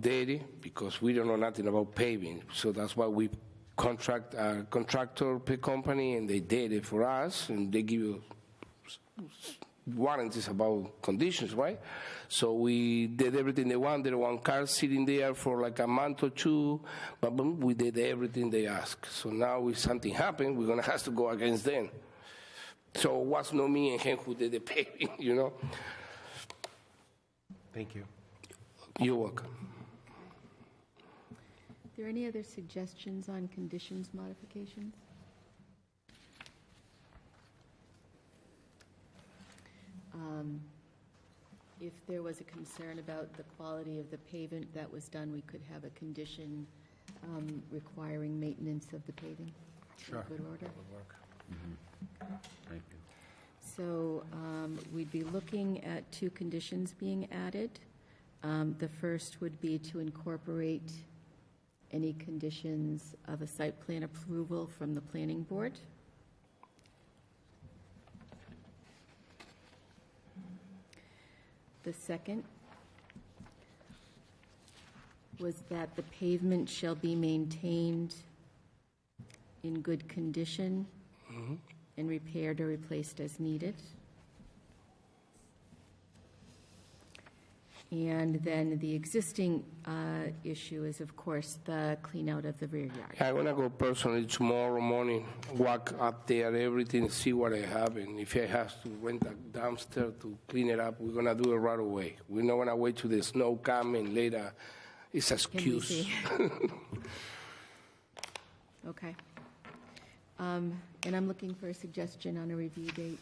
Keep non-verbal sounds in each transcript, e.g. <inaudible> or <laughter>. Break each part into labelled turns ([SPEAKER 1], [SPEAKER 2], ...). [SPEAKER 1] dairy because we don't know nothing about paving. So that's why we contract a contractor pe- company and they did it for us and they give you s- s- warranties about conditions, right? So we did everything they want. There were one car sitting there for like a month or two, but boom, we did everything they asked. So now if something happened, we're gonna have to go against them. So it was not me and him who did the <laughs> paving, you know?
[SPEAKER 2] Thank you.
[SPEAKER 1] You're welcome.
[SPEAKER 3] there any other suggestions on conditions modifications? Um, If there was a concern about the quality of the pavement that was done, we could have a condition um, requiring maintenance of the paving. Sure. good order.
[SPEAKER 4] Mm-hmm. Thank you.
[SPEAKER 3] So um, we'd be looking at two conditions being added. Um, The first would be to incorporate any conditions of a site plan approval from the planning board. The second was that the pavement shall be maintained in good condition and repaired or replaced as needed. And then the existing uh, issue is, of course, the clean out of the rear yard.
[SPEAKER 1] I'm gonna go personally tomorrow morning, walk up there, everything, see what I have, and if I have to rent a dumpster to clean it up, we're gonna do it right away. We're not gonna wait till the snow come and later, it's
[SPEAKER 3] Can we
[SPEAKER 1] excuse.
[SPEAKER 3] see? Okay. Um, And I'm looking for a suggestion on a review date.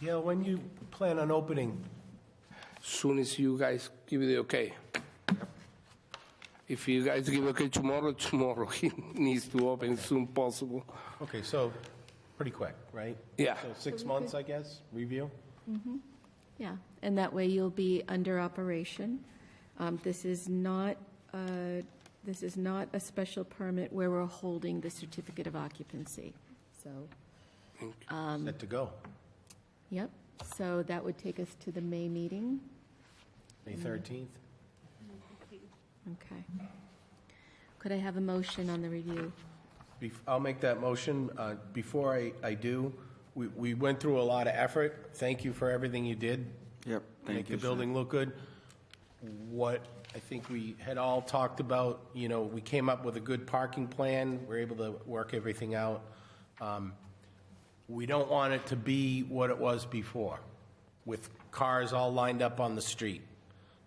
[SPEAKER 2] Gail, when you plan on opening,
[SPEAKER 1] <laughs> Soon as you guys give it the okay. If you guys give okay tomorrow, <laughs> tomorrow, he needs to open soon possible.
[SPEAKER 2] okay, so, pretty quick, right?
[SPEAKER 1] Yeah.
[SPEAKER 2] So six months, I guess, review?
[SPEAKER 3] Yeah, and that way you'll be under operation. Um, This is not, uh, this is not a special permit where we're holding the certificate of occupancy, so.
[SPEAKER 2] Set to go,
[SPEAKER 3] Yep, so that would take us to the May meeting,
[SPEAKER 2] May 13th?
[SPEAKER 3] okay. Could I have a motion on the review?
[SPEAKER 2] Bef- I'll make that motion. Uh, Before I, I do, we, we went through a lot of effort. Thank you for everything you did.
[SPEAKER 4] Yep,
[SPEAKER 2] Make
[SPEAKER 4] thank
[SPEAKER 2] the
[SPEAKER 4] you. sir.
[SPEAKER 2] building look good. What I think we had all talked about, you know, we came up with a good parking plan. We're able to work everything out. Um, We don't want it to be what it was before, with cars all lined up on the street.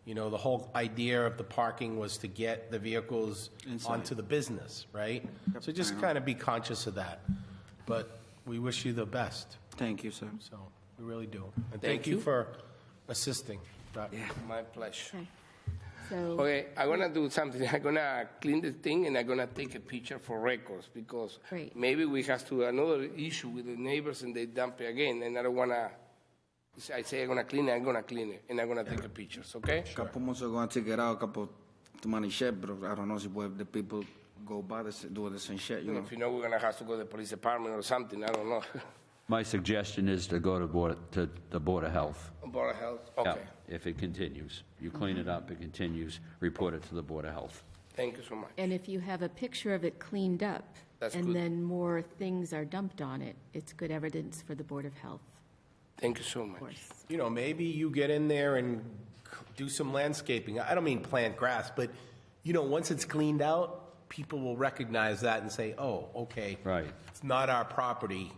[SPEAKER 2] You know, the whole idea of the parking was to get the vehicles
[SPEAKER 4] Inside.
[SPEAKER 2] onto the business, right? So just kind of be conscious of that. But we wish you the best,
[SPEAKER 4] Thank you, sir.
[SPEAKER 2] so we really do.
[SPEAKER 1] Thank
[SPEAKER 2] And thank you
[SPEAKER 1] you.
[SPEAKER 2] for assisting. Doc.
[SPEAKER 1] My pleasure.
[SPEAKER 3] Okay. So,
[SPEAKER 1] Okay, I'm gonna do something. <laughs> I'm gonna clean the thing and I'm gonna take a picture for records because
[SPEAKER 3] Great.
[SPEAKER 1] maybe we have to another issue with the neighbors and they dump it again and I don't wanna. I say I'm gonna clean it. I'm gonna clean it and I'm gonna take a pictures. Okay.
[SPEAKER 4] Couple months ago, I took it out, couple money shit, but I don't know if where the people go by this, do this and shit, you know?
[SPEAKER 1] If you know we're gonna have to go to the police department or something, I don't know. <laughs>
[SPEAKER 5] My suggestion is to go to Board, to the Board of Health.
[SPEAKER 1] Board of Health.
[SPEAKER 5] Yeah,
[SPEAKER 1] uh, Okay.
[SPEAKER 5] If it continues. You clean it up, it continues, report it to the Board of Health.
[SPEAKER 1] Thank you so much.
[SPEAKER 3] and if you have a picture of it cleaned up,
[SPEAKER 1] That's
[SPEAKER 3] and
[SPEAKER 1] good.
[SPEAKER 3] then more things are dumped on it, it's good evidence for the Board of Health,
[SPEAKER 1] Thank you so much.
[SPEAKER 3] of course.
[SPEAKER 2] you know, maybe you get in there and c- do some landscaping. I don't mean plant grass, but, you know, once it's cleaned out, people will recognize that and say, oh, okay.
[SPEAKER 5] Right.
[SPEAKER 2] It's not our property,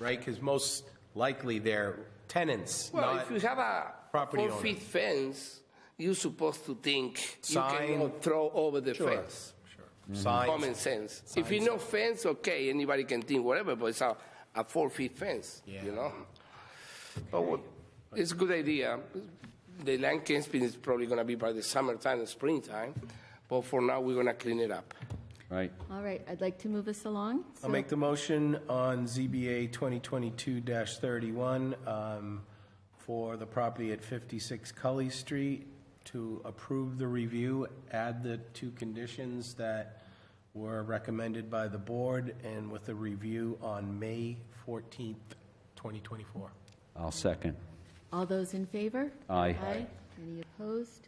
[SPEAKER 2] right? Because most likely they're tenants,
[SPEAKER 1] Well,
[SPEAKER 2] not,
[SPEAKER 1] if you have a
[SPEAKER 2] property owner.
[SPEAKER 1] four-feet fence, you're supposed to think you
[SPEAKER 2] Sign.
[SPEAKER 1] cannot throw over the
[SPEAKER 2] Sure.
[SPEAKER 1] fence. Common
[SPEAKER 2] signs.
[SPEAKER 1] sense. If you know fence, okay, anybody can think whatever, but it's a, a four feet fence, you
[SPEAKER 2] Yeah.
[SPEAKER 1] know? But what, it's a good idea. The land canopy is probably gonna be by the summertime and springtime, but for now, we're gonna clean it up.
[SPEAKER 5] Right?
[SPEAKER 3] All right, I'd like to move us along.
[SPEAKER 2] I'll
[SPEAKER 3] So-
[SPEAKER 2] make the motion on ZBA 2022-31 um, for the property at 56 Cully Street to approve the review, add the two conditions that were recommended by the board, and with a review on May 14th, 2024.
[SPEAKER 5] I'll second.
[SPEAKER 3] All those in favor?
[SPEAKER 5] Aye.
[SPEAKER 3] Aye. Any opposed?